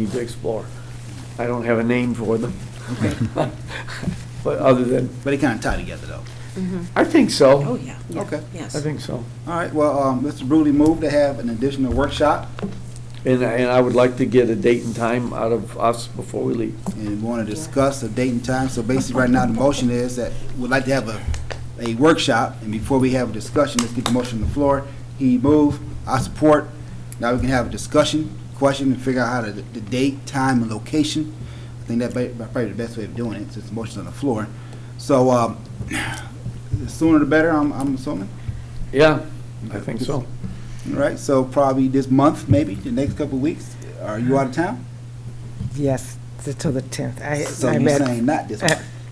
need to explore. I don't have a name for them. But other than, But it kind of tie together, though. I think Oh, so. yeah. Okay. Yes. I think so. All right, well, um, Mr. Brewley moved to have an additional workshop, And, and I would like to get a date and time out of us before we leave. and want to discuss the date and time. So basically, right now, the motion is that we'd like to have a, a workshop, and before we have a discussion, let's get the motion on the floor. He moved, I support. Now we can have a discussion, question, and figure out how to, the date, time, and location. I think that may- probably the best way of doing it, since the motion's on the floor. So, um, the sooner the better, I'm, I'm assuming. Yeah, I think so. All right, so probably this month, maybe, the next couple of weeks. Are you out of town? Yes, to to the 10th. I- So I you're read- saying not this uh,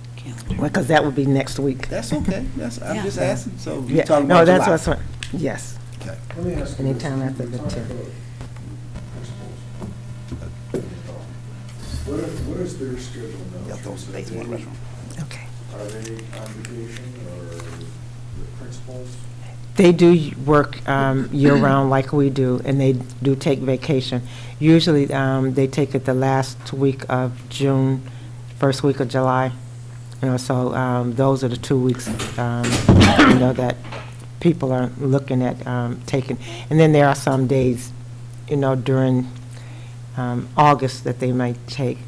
month? Because that would be next week. That's okay, that's, I'm Yeah. just asking, so Yeah, you're talking No, about that's July? what's, what- yes. Let me ask you this. Anytime after the Talk 10th. about principals. What is, what is their schedule now? Yeah, those Teresa? dates They- in the restaurant. Okay. Are they on vacation or the principals? They do work um, year-round like we do, and they do take vacation. Usually, um, they take it the last week of June, first week of July. You know, so um, those are the two weeks, um, you know, that people are looking at um, taking. And then there are some days, you know, during um, August that they might take.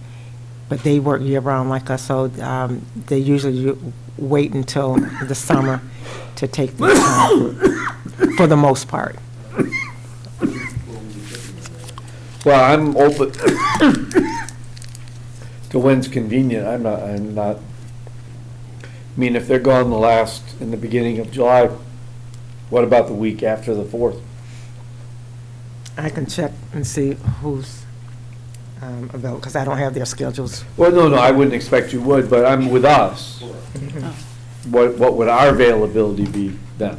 But they work year-round like us, so um, they usually u- wait until the summer to take the time, for the most part. Well, I'm open to when's convenient. I'm not, I'm not, I mean, if they're gone the last, in the beginning of July, what about the week after the fourth? I can check and see who's um, available, because I don't have their schedules. Well, no, no, I wouldn't expect you would, but I'm with us. What, what would our availability be then?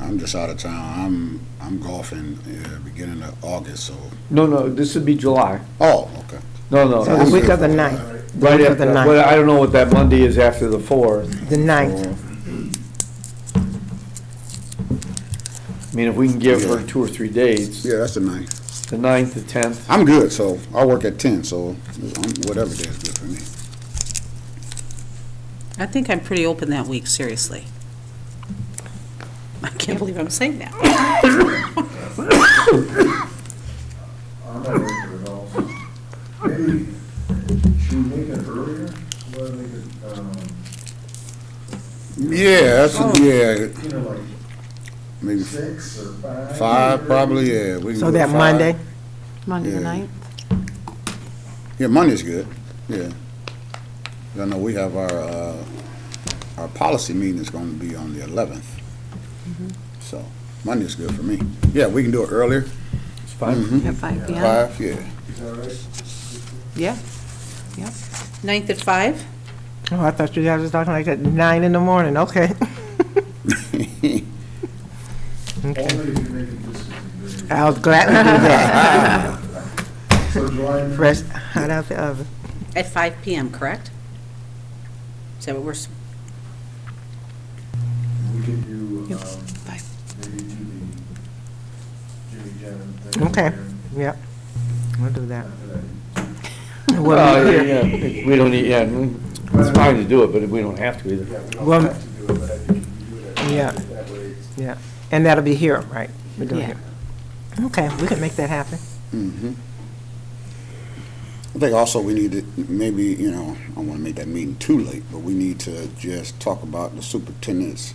I'm just out of town. I'm, I'm golfing, uh, beginning of August, so, No, no, this would be July. oh, okay. No, no. So the this- week of the ninth, the Right week of the after, well, ninth, I don't know what that Monday is after the fourth. the ninth, I mean, if we can give her two or three days, Yeah, that's the ninth. the ninth, the tenth, I'm good, so, I work at ten, so I'm- whatever day is good for me. I think I'm pretty open that week, seriously. I can't believe I'm saying that. I'm not sure at all. Maybe, should we make it earlier? Well, they could, um, Yeah, that's, yeah, you know, like maybe six or five? five, probably, yeah. we can so go that five. Monday, Monday the Yeah. ninth? Yeah, Monday's good, yeah. I know we have our, uh, our policy meeting is gonna be on the eleventh. So, Monday's good for me. Yeah, we can do it earlier, it's fine. At five PM? five, yeah. Is that right? Yeah. Yep. Ninth at five? oh, I thought you guys was talking like at nine in the morning, okay. Only if you make it this is a good- I'll gladly do that, So July ninth? fresh hot out the oven. At five PM, correct? Is that what we're, s- We could do, Yep. um, Five. maybe do the Jimmy Jam thing. Okay. and Yep, we'll do that. after that. We'll Well, meet here. yeah, We don't, need- yeah, mm, it's fine to do it, but we don't have to either. Yeah, we don't Well, have to do it, but I think if you do it, Yeah. I think that way it's Yeah, and that'll be here, right? We're doing Yeah. here. Okay, we can make that happen. Mhm. I think also we need to, maybe, you know, I don't want to make that meeting too late, but we need to just talk about the superintendent's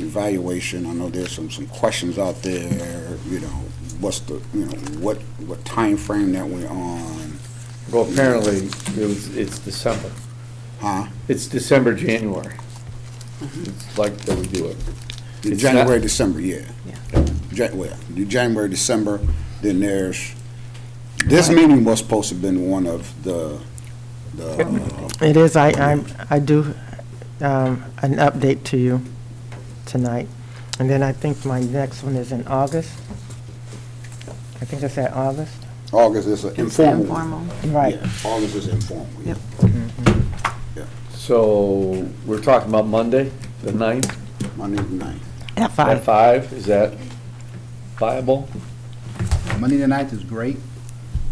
evaluation. I know there's some, some questions out there, you know, what's the, you know, what, what frame that we're on, Well, apparently, it was, it's December. huh? It's December, January. It's like that we do it. The It's January, not- December, yeah. Ja- well, the January, December, then there's, this meeting was supposed to have been one of the, the uh, It is, I, I'm, I do, um, an update to you tonight. And then I think my next one is in August. I think it's at August. uh, August is an It's informal one. informal. Right. Yeah, August is informal. yeah. Yep. So, we're talking about Monday, the ninth, Monday night. At at five. five, is that viable? Monday the ninth is great.